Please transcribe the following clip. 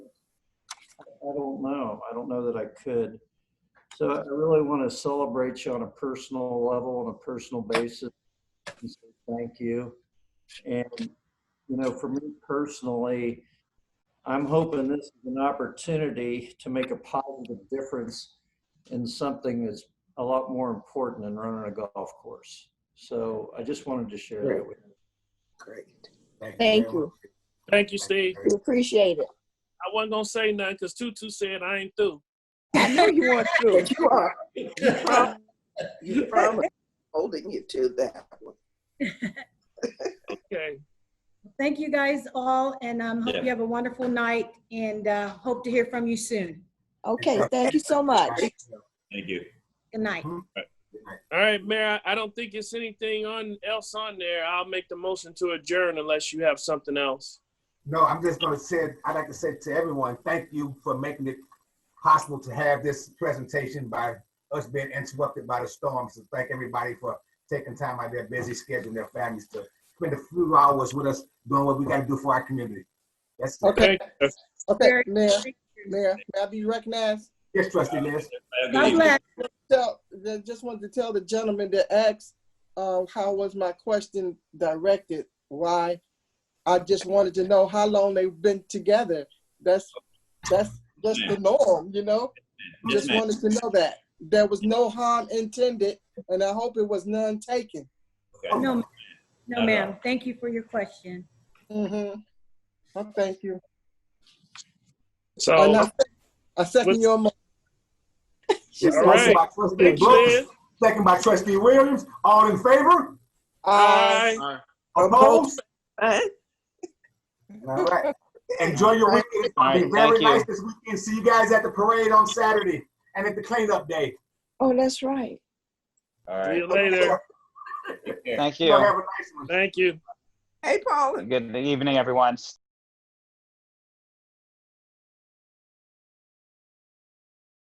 I don't know. I don't know that I could. So I really want to celebrate you on a personal level, on a personal basis. and say Thank you. And, you know, for me personally, I'm hoping this is an opportunity to make a positive difference in something that's a lot more important than running a golf course. So I just wanted to share that with you. Great. Thank very you. much. Thank you, Steve. We appreciate it. I wasn't gonna say nothing because Tutu said I ain't through. I know you want to. But you are, you prom- you promised, holding you to that one. Okay. Thank you guys all, and um, hope you have a wonderful night, and uh, hope to hear from you soon. Okay, thank you so much. Thank you. Good night. All right, Mayor, I don't think it's anything on else on there. I'll make the motion to adjourn unless you have something else. No, I'm just gonna say, I'd like to say to everyone, thank you for making it possible to have this presentation by us being interrupted by the storm. So thank everybody for taking time out of their busy schedule and their families to spend a few hours with us doing what we gotta do for our community. That's, Okay, Okay. okay, Mayor, Mayor, may I be recognized? yes, trustee Liz. Have a good God evening. bless. Tell, I just wanted to tell the gentleman that asked, um, how was my question directed? Why? I just wanted to know how long they've been together. That's, that's, that's the norm, you know? Yes, Just ma'am. wanted to know that. There was no harm intended, and I hope it was none taken. Okay. No, no, ma'am. Thank you for your question. Mm-hmm. Well, thank you. And So, I, I second your mo- Yes, All right. motion by trustee thanks, Liz. Brooks, second by trustee Williams. All in favor? uh, Aye. Opposed? Aye. All right. Enjoy your weekend. It's gonna be All very right, thank you. nice this weekend. See you guys at the parade on Saturday and at the cleanup day. Oh, that's right. All see right. you later. Take care. Thank Y'all you. have a nice one. Thank you. Hey, Paula. Good evening, everyone.